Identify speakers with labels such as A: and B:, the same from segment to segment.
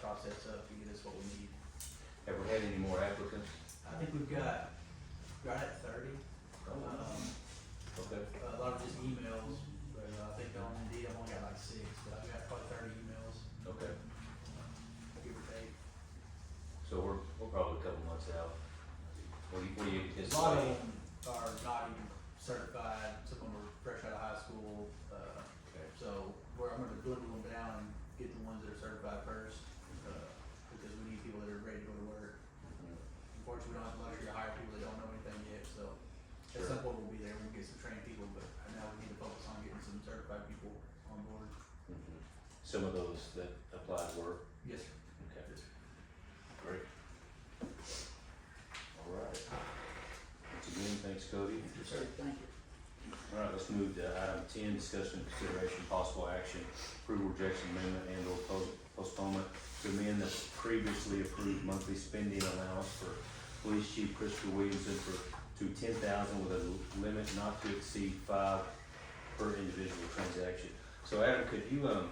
A: process up to get us what we need.
B: Have we had any more applicants?
A: I think we've got, right at thirty, um,
B: Okay,
A: a lot of just emails, but uh, I think on Indeed, I've only got like six, but I've got probably thirty emails,
B: okay.
A: um, give or take.
B: So we're, we're probably a couple months out. What do you, what do you
A: A lot of
B: anticipate?
A: them are not even certified, some of them are fresh out of high school, uh,
B: Okay,
A: so we're, I'm gonna dwindle them down and get the ones that are certified first, uh, because we need people that are ready to go to work. Unfortunately, we don't have the luxury to hire people that don't know anything yet, so at
B: Sure.
A: some point we'll be there, we'll get some trained people, but right now we need to focus on getting some certified people on board.
B: Mhm. Some of those that applied were,
A: Yes, sir.
B: okay, great. All right. Once again, thanks Cody.
A: Yes, sir. Thank you.
B: All right, let's move to item ten, discussion and consideration, possible action, approval, rejection, amendment, and or po- postponement to amend the previously approved monthly spending allowance for Police Chief Christopher Williamson for, to ten thousand with a limit not to exceed five per individual transaction. So Adam, could you, um,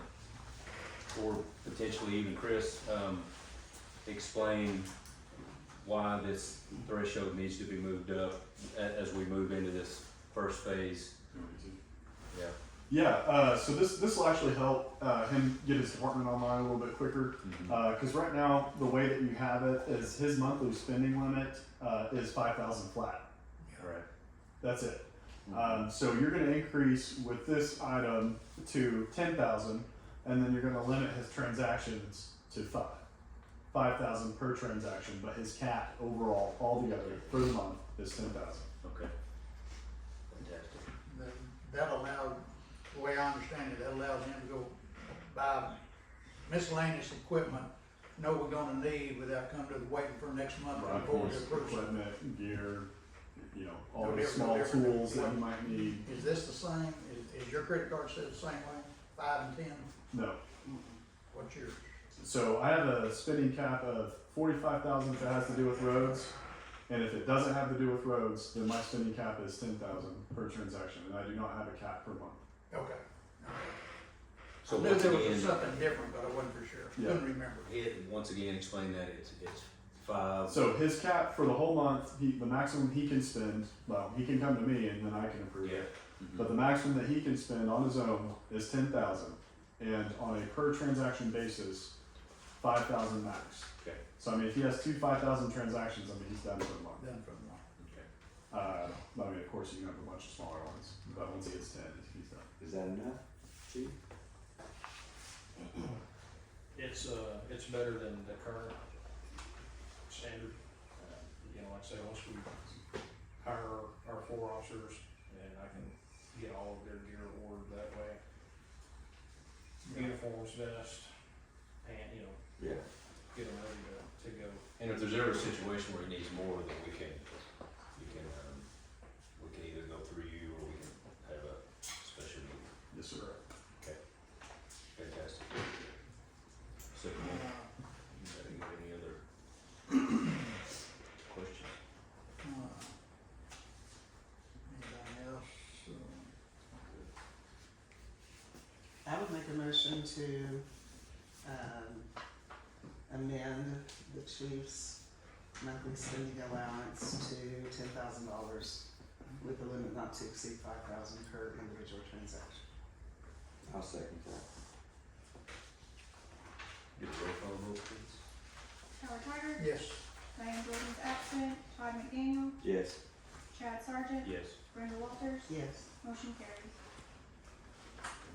B: or potentially even Chris, um, explain why this threshold needs to be moved up a- as we move into this first phase? Yeah.
C: Yeah, uh, so this this will actually help uh, him get his department online a little bit quicker
B: Mhm.
C: because right now the way that you have it is his monthly spending limit uh, is five thousand flat.
B: Right.
C: That's it. Um, so you're going to increase with this item to ten thousand, and then you're going to limit his transactions to five, five thousand per transaction. But his cap overall, altogether for the month, is ten thousand.
B: Okay. Fantastic.
D: that, that allowed, the way I understand it, that allows him to go buy miscellaneous equipment, know we're gonna need without coming to the waiting for next month for the board to approve it.
C: Equipment, gear, you know, all
D: No
C: the
D: different,
C: small
D: different.
C: tools that you might need.
D: Is this the same, is, is your credit card set the same way, five and ten,
C: No.
D: what's your,
C: So I have a spending cap of forty-five thousand if it has to do with roads, and if it doesn't have to do with roads, then my spending cap is ten thousand per transaction, and I do not have a cap per month.
D: okay. I
B: So
D: knew
B: once
D: there was
B: again,
D: something different, but I wasn't for sure,
C: Yeah.
D: couldn't remember.
B: it, once again, explain that it's, it's five,
C: So his cap for the whole month, he, the maximum he can spend, well, he can come to me and then I can approve
B: yeah.
C: it.
B: Mhm.
C: But the maximum that he can spend on his own is ten thousand, and on a per transaction basis, five thousand max.
B: Okay.
C: So I mean, if he has two five thousand transactions, I mean, he's done for the month.
D: Done from one.
B: Okay.
C: Uh, but I mean, of course, you can have a bunch of smaller ones, but once he gets ten, he's done.
E: Is that enough, chief?
F: It's, uh, it's better than the current standard. Uh, You know, like I say, once we hire our four officers, and I can get all of their gear ordered that way. Uniforms, vest, and, you know,
E: Yeah.
F: get them ready to, to go.
B: And if there's ever a situation where he needs more, then we can, we can, um, we can either go through you or we can have a special meeting.
C: Yes, sir.
B: Fantastic. So, come on. you got any- any other questions?
D: Uh, Anybody else, Uh,
G: I would make a motion to, um, amend the chief's monthly spending allowance to ten thousand dollars with a limit not to exceed five thousand per individual transaction.
E: I'll second that.
B: Get a roll call vote, please.
H: Howard Hager,
D: yes,
H: Diane Jordan's absent, Todd McDaniel,
E: Yes.
H: Chad Sargent,
B: Yes.
H: Brenda Walters,
G: Yes.
H: motion carries.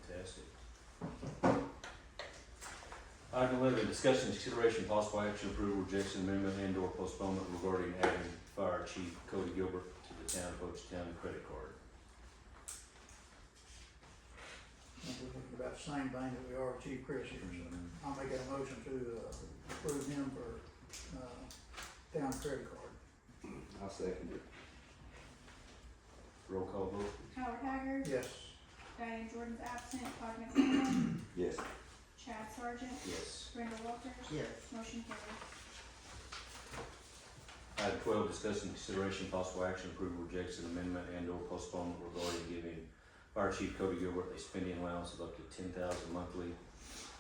B: Fantastic. Item eleven, discussion, consideration, possible action, approval, rejection, amendment, and or postponement regarding adding fire chief Cody Gilbert to the town of Hochatown credit card.
D: I think we're looking about the same thing that we are with Chief Chris here, so. I'll make a motion to uh, approve him for, uh, town credit card.
E: I'll second it.
B: Roll call vote,
H: Howard Hager,
D: Yes,
H: Diane Jordan's absent, Todd McDaniel,
E: Yes.
H: Chad Sargent,
B: yes.
H: Brenda Walters,
G: Yes.
H: motion carries.
B: Item twelve, discussion, consideration, possible action, approval, rejection, amendment, and or postponement regarding giving fire chief Cody Gilbert a spending allowance of up to ten thousand monthly